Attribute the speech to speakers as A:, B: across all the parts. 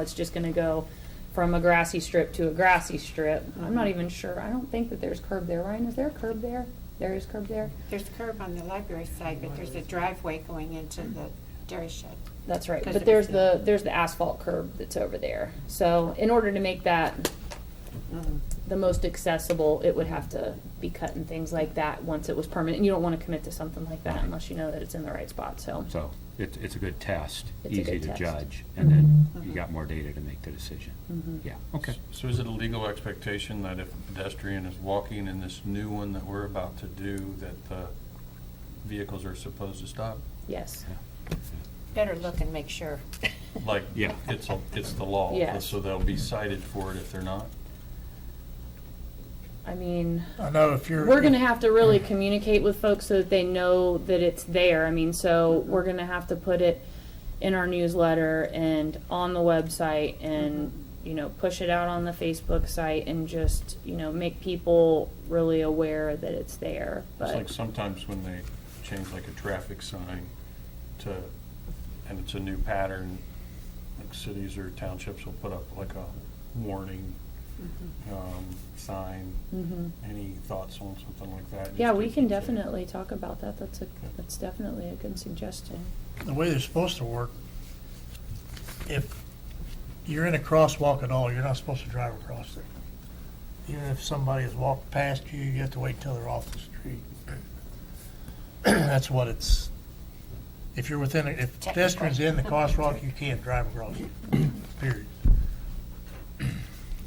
A: It's just gonna go from a grassy strip to a grassy strip. I'm not even sure, I don't think that there's curb there, Ryan, is there a curb there? There is curb there?
B: There's a curb on the library side, but there's a driveway going into the dairy shed.
A: That's right,
B: Because
A: but
B: it
A: there's
B: was
A: the, there's the asphalt curb that's over there. So in order to make that
B: Uh-huh.
A: the most accessible, it would have to be cut and things like that once it was permanent. And you don't wanna commit to something like that unless you know that it's in the right spot, so.
C: So it's, it's a good test,
A: It's a
C: easy
A: good
C: to
A: test.
C: judge, and then you
B: Mhm.
C: got more data to make the decision.
A: Mhm.
C: Yeah, okay.
D: So is it a legal expectation that if a pedestrian is walking in this new one that we're about to do, that the vehicles are supposed to stop?
A: Yes,
B: Better look and make sure.
D: Like,
C: Yeah.
D: it's, a- it's the law.
A: Yes.
D: So they'll be cited for it if they're not?
A: I mean.
E: I know if you're.
A: We're gonna have to really communicate with folks so that they know that it's there. I mean, so we're gonna have to put it in our newsletter and on the website and, you know, push it out on the Facebook site and just, you know, make people really aware that it's there.
D: It's like
A: But,
D: sometimes when they change like a traffic sign to, and it's a new pattern, like cities or townships will put up like a warning, um, sign.
A: Mhm.
D: Any thoughts on something like that?
A: yeah,
D: Just
A: we
D: to-
A: can
D: to-
A: definitely talk about that. That's a, that's definitely a good suggestion.
E: The way they're supposed to work, if you're in a crosswalk at all, you're not supposed to drive across there. Even if somebody has walked past you, you have to wait till they're off the street. That's what it's, if you're within, a- if pedestrians in the crosswalk, you can't drive across it, period.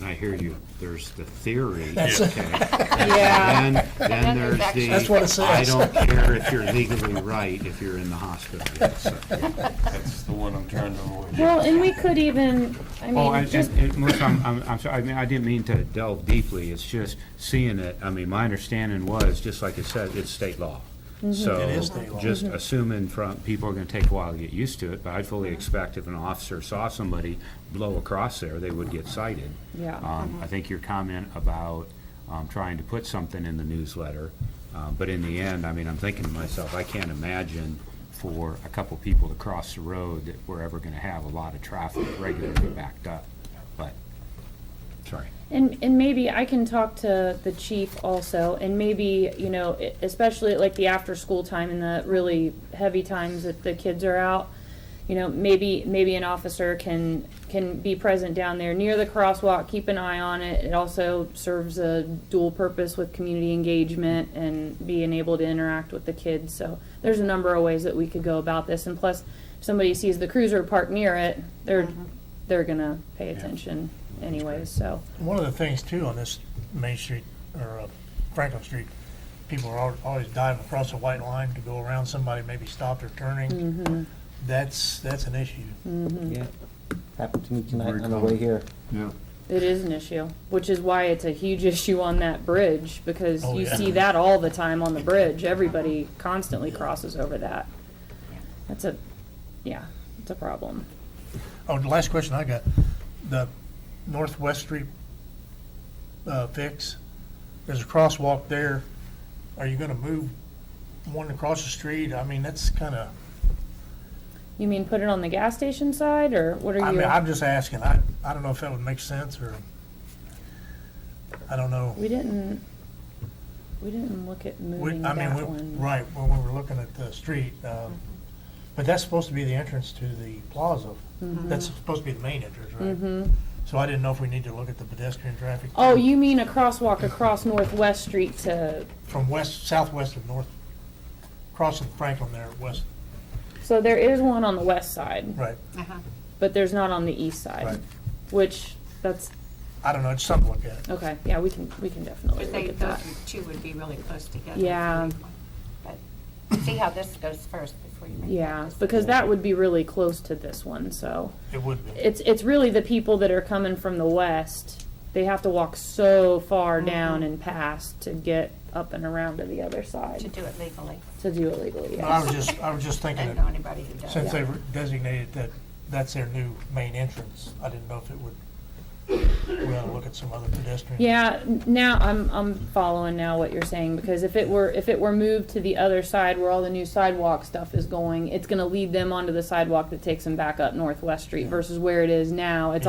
C: I hear you. There's the theory.
E: That's-
C: And then- then
B: Then
C: there's
B: there's
C: the.
E: That's what it
C: I
E: says.
C: don't care if you're legally right if you're in the hospital. Yes, so-
D: That's the one I'm trying to avoid.
A: Well, and we could even, I
C: Well,
A: mean,
C: and,
A: just,
C: and, and Melissa, I'm, I'm, I'm sorry, I mean, I didn't mean to delve deeply, it's just seeing it, I mean, my understanding was, just like it said, it's state law. So,
E: Mm-hmm. It is state law.
C: just assuming from, people are gonna take a while to get used to it, but I'd fully expect if an officer saw somebody blow across there, they would get cited.
A: yeah,
C: Um, I think your comment about, um, trying to put something in the newsletter, uh, but in the end, I mean, I'm thinking to myself, I can't imagine for a couple people to cross the road that we're ever gonna have a lot of traffic regularly backed up, but, sorry.
A: And, and maybe I can talk to the chief also, and maybe, you know, e- especially at like the after-school time and the really heavy times that the kids are out, you know, maybe, maybe an officer can, can be present down there near the crosswalk, keep an eye on it. It also serves a dual purpose with community engagement and being able to interact with the kids. So there's a number of ways that we could go about this, and plus, if somebody sees the cruiser parked near it, they're, they're gonna pay attention anyways, so.
E: One of the things too on this Main Street or uh, Franklin Street, people are al- always diving across a white line to go around somebody, maybe stop their turning.
A: Mm-hmm.
E: That's, that's an issue.
F: Yeah, happened to me
C: Very
F: tonight on the
C: common.
F: way here.
C: Yeah.
A: It is an issue, which is why it's a huge issue on that bridge, because
E: Oh,
A: you
E: yeah.
A: see that all the time on the bridge. Everybody constantly crosses over that. That's a, yeah, it's a problem.
E: Oh, the last question I got, the Northwest Street uh, fix, there's a crosswalk there. Are you gonna move one across the street? I mean, that's kinda,
A: You mean put it on the gas station side, or what are
E: I mean,
A: you?
E: I'm just asking. I, I don't know if that would make sense or, I don't know.
A: We didn't, we didn't look at
E: We-
A: moving
E: I mean,
A: that
E: we-
A: one.
E: Right, when we were looking at the street, um,
A: Mm-hmm.
E: but that's supposed to be the entrance to the plaza. That's supposed to be the main entrance, right? So I didn't know if we need to look at the pedestrian traffic.
A: Mm-hmm. Oh, you mean a crosswalk across Northwest Street to,
E: From west, southwest of north, crossing Franklin there, west,
A: so there is one on the west side,
E: right,
B: Uh-huh.
A: but there's not on the east
E: right.
A: side, which, that's,
E: I don't know, it's something to look at.
A: okay, yeah, we can, we can definitely
B: But they,
A: look at
B: those
A: that.
B: two would be really close together.
A: Yeah.
B: But see how this goes first before you make that
A: Yeah,
B: decision.
A: because that would be really close to this one, so.
E: It would be.
A: It's, it's really the people that are coming from the west, they have to walk so
B: Mm-hmm.
A: far down and past to get up and around to the other
B: To
A: side,
B: do it legally.
A: to do it legally,
E: But I
A: yes.
E: was just, I was just
B: I
E: thinking,
B: don't know
E: that
B: anybody who does.
E: since they were designated that that's their new main entrance, I didn't know if it would we ought to look at some other pedestrian.
A: Yeah, n- now I'm, I'm following now what you're saying, because if it were, if it were moved to the other side where all the new sidewalk stuff is going, it's gonna lead them onto the sidewalk that takes them back up Northwest Street versus where it is now, it's